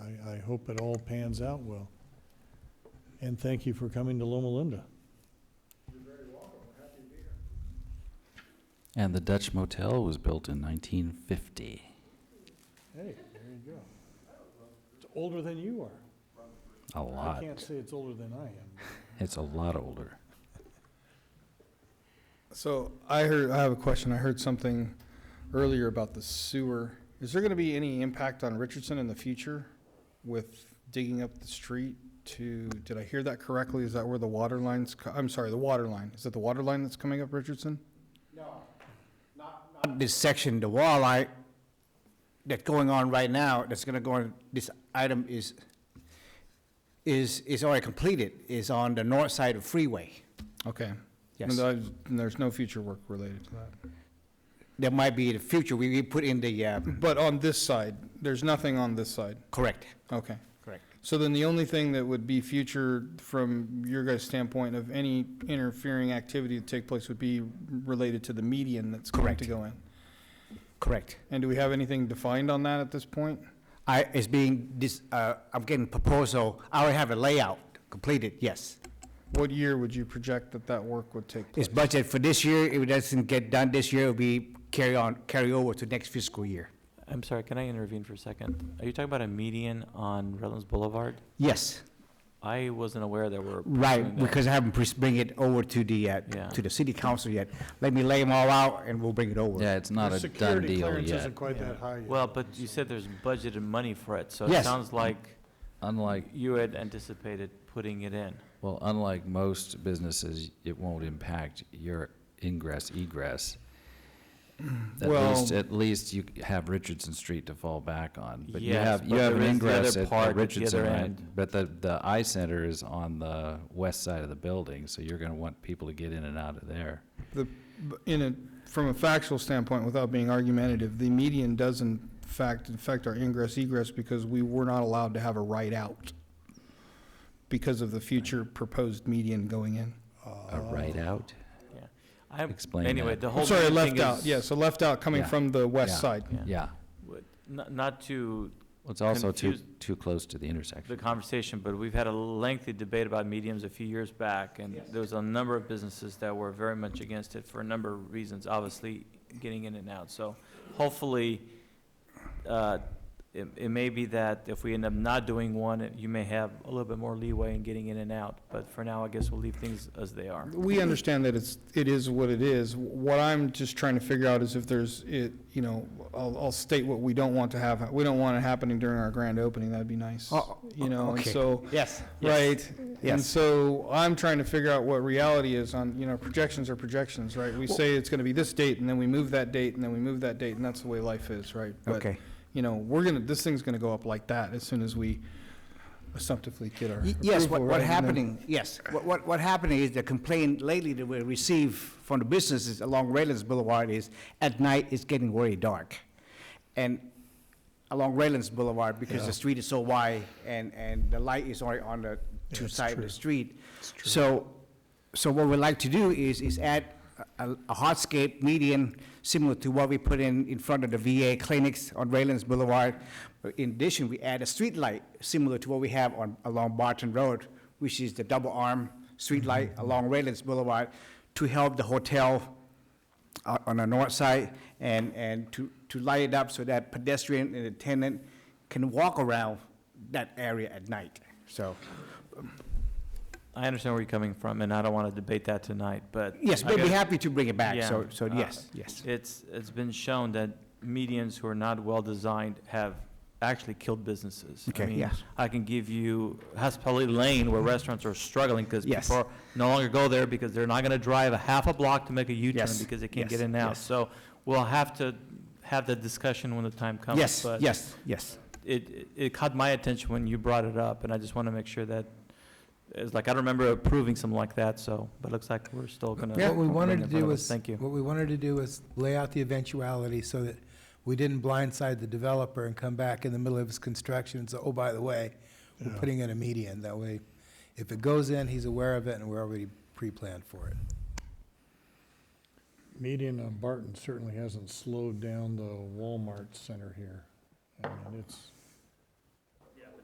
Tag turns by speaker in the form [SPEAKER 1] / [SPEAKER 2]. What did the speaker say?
[SPEAKER 1] hope it all pans out well. And thank you for coming to Loma Linda.
[SPEAKER 2] And the Dutch Motel was built in 1950.
[SPEAKER 1] Hey, there you go. It's older than you are.
[SPEAKER 2] A
[SPEAKER 1] I
[SPEAKER 2] lot.
[SPEAKER 1] can't say it's older than I am.
[SPEAKER 2] It's a lot older.
[SPEAKER 3] So I heard, I have a question. I heard something earlier about the sewer. Is there going to be any impact on Richardson in the future with digging up the street to, did I hear that correctly? Is that where the water lines, co- I'm sorry, the water line? Is it the water line that's coming up Richardson?
[SPEAKER 4] this section, the wall art, that's going on right now, that's gonna go on, this item is, is, is already completed, is on the north side of freeway.
[SPEAKER 3] Okay.
[SPEAKER 4] Yes.
[SPEAKER 3] And I- and there's no future work related to that.
[SPEAKER 4] There might be in the future, we, we put in the, uh,
[SPEAKER 3] But on this side, there's nothing on this side.
[SPEAKER 4] correct,
[SPEAKER 3] Okay.
[SPEAKER 4] correct.
[SPEAKER 3] So then the only thing that would be future from your guys' standpoint of any interfering activity to take place would be related to the median that's going to
[SPEAKER 4] Correct.
[SPEAKER 3] go in?
[SPEAKER 4] Correct.
[SPEAKER 3] And do we have anything defined on that at this point?
[SPEAKER 4] I, it's being, this, uh, I'm getting proposal, I already have a layout completed, yes.
[SPEAKER 3] What year would you project that that work would take place?
[SPEAKER 4] It's budget for this year, if it doesn't get done this year, it'll be carry on, carry over to next fiscal year.
[SPEAKER 5] I'm sorry, can I intervene for a second? Are you talking about a median on Redlands Boulevard?
[SPEAKER 4] Yes,
[SPEAKER 5] I wasn't aware there were.
[SPEAKER 4] Right,
[SPEAKER 5] doing that.
[SPEAKER 4] because I haven't pres- bring it over to the, uh,
[SPEAKER 5] Yeah.
[SPEAKER 4] to the city council yet. Let me lay them all out and we'll bring it over.
[SPEAKER 2] Yeah, it's not
[SPEAKER 1] Your
[SPEAKER 2] a done
[SPEAKER 1] Security
[SPEAKER 2] deal
[SPEAKER 1] clearance
[SPEAKER 2] yet.
[SPEAKER 1] isn't quite that high yet.
[SPEAKER 5] Well, but you said there's budgeted money for it, so it
[SPEAKER 4] Yes.
[SPEAKER 5] sounds like
[SPEAKER 2] Unlike,
[SPEAKER 5] you had anticipated putting it in.
[SPEAKER 2] well, unlike most businesses, it won't impact your ingress egress. At
[SPEAKER 3] Well-
[SPEAKER 2] least, at least you have Richardson Street to fall back on. But you
[SPEAKER 5] Yes,
[SPEAKER 2] have, you
[SPEAKER 5] but
[SPEAKER 2] have
[SPEAKER 5] there
[SPEAKER 2] an
[SPEAKER 5] is the other
[SPEAKER 2] ingress at-
[SPEAKER 5] part
[SPEAKER 2] at
[SPEAKER 5] at the
[SPEAKER 2] Richardson,
[SPEAKER 5] other
[SPEAKER 2] right?
[SPEAKER 5] end.
[SPEAKER 2] But the, the eye center is on the west side of the building, so you're gonna want people to get in and out of there.
[SPEAKER 3] The, in a, from a factual standpoint, without being argumentative, the median does in fact affect our ingress egress because we were not allowed to have a right out because of the future proposed median going in.
[SPEAKER 2] A Uh, right out?
[SPEAKER 5] Yeah. I,
[SPEAKER 2] Explain
[SPEAKER 5] anyway,
[SPEAKER 2] that.
[SPEAKER 5] the whole
[SPEAKER 3] I'm sorry,
[SPEAKER 5] median
[SPEAKER 3] left
[SPEAKER 5] thing
[SPEAKER 3] out,
[SPEAKER 5] is-
[SPEAKER 3] yes, a left out coming
[SPEAKER 2] Yeah.
[SPEAKER 3] from the
[SPEAKER 2] Yeah.
[SPEAKER 3] west side.
[SPEAKER 5] Yeah.
[SPEAKER 2] Yeah.
[SPEAKER 5] w- Not, not to
[SPEAKER 2] Well, it's also too,
[SPEAKER 5] Confused-
[SPEAKER 2] too close to the
[SPEAKER 5] the
[SPEAKER 2] intersection.
[SPEAKER 5] conversation, but we've had a lengthy debate about mediums a few years back, and there was a number of businesses that were very much against it for a number of reasons, obviously getting in and out. So hopefully, uh, it, it may be that if we end up not doing one, it- you may have a little bit more leeway in getting in and out. But for now, I guess we'll leave things as they are.
[SPEAKER 3] We understand that it's, it is what it is. What I'm just trying to figure out is if there's, it, you know, I'll, I'll state what we don't want to have. We don't want it happening during our grand opening, that'd be nice,
[SPEAKER 5] Uh,
[SPEAKER 4] Oh,
[SPEAKER 3] you know, and
[SPEAKER 4] okay.
[SPEAKER 3] so,
[SPEAKER 4] Yes.
[SPEAKER 3] right? And
[SPEAKER 4] Yes.
[SPEAKER 3] so I'm trying to figure out what reality is on, you know, projections are projections, right? We say it's gonna be this date, and then we move that date, and then we move that date, and that's the way life is, right? But,
[SPEAKER 4] Okay.
[SPEAKER 3] You know, we're gonna, this thing's gonna go up like that as soon as we assumptively get our
[SPEAKER 4] Y- Yes, what,
[SPEAKER 3] approval,
[SPEAKER 4] what
[SPEAKER 3] right? And then-
[SPEAKER 4] happening, yes, what, what, what happening is the complaint lately that we receive from the businesses along Redlands Boulevard is at night it's getting very dark. And along Redlands Boulevard, because the street is so wide and, and the light is only on the two sides of the street. So, so what we like to do is, is add a, a- a hardscape median similar to what we put in, in front of the VA clinics on Redlands Boulevard. In addition, we add a street light similar to what we have on, along Barton Road, which is the double arm street light along Redlands Boulevard to help the hotel o- on the north side and, and to, to light it up so that pedestrian and attendant can walk around that area at night, so.
[SPEAKER 5] I understand where you're coming from, and I don't want to debate that tonight, but.
[SPEAKER 4] Yes,
[SPEAKER 5] I
[SPEAKER 4] we'd be
[SPEAKER 5] guess-
[SPEAKER 4] happy to bring it back,
[SPEAKER 5] Yeah,
[SPEAKER 4] so, so
[SPEAKER 5] uh,
[SPEAKER 4] yes, yes.
[SPEAKER 5] It's, it's been shown that medians who are not well-designed have actually killed businesses. I
[SPEAKER 4] Okay,
[SPEAKER 5] mean,
[SPEAKER 4] yes.
[SPEAKER 5] I can give you Hospitality Lane where restaurants are struggling because
[SPEAKER 4] Yes.
[SPEAKER 5] people are- no longer go there because they're not going to drive a half a block to make a U-turn
[SPEAKER 4] Yes,
[SPEAKER 5] because they
[SPEAKER 4] yes,
[SPEAKER 5] can't get in and out.
[SPEAKER 4] yes.
[SPEAKER 5] So we'll have to have the discussion when the time comes.
[SPEAKER 4] Yes,
[SPEAKER 5] but
[SPEAKER 4] yes, yes.
[SPEAKER 5] It, it- it caught my attention when you brought it up, and I just want to make sure that, it's like, I don't remember approving something like that, so, but it looks like we're still going to.
[SPEAKER 6] What we wanted to do was,
[SPEAKER 5] Thank you.
[SPEAKER 6] what we wanted to do was lay out the eventuality so that we didn't blindside the developer and come back in the middle of his construction and say, oh, by the way, we're
[SPEAKER 1] Yeah.
[SPEAKER 6] putting in a median. That way, if it goes in, he's aware of it and we're already pre-planned for it.
[SPEAKER 1] Median on Barton certainly hasn't slowed down the Walmart center here. I mean, it's,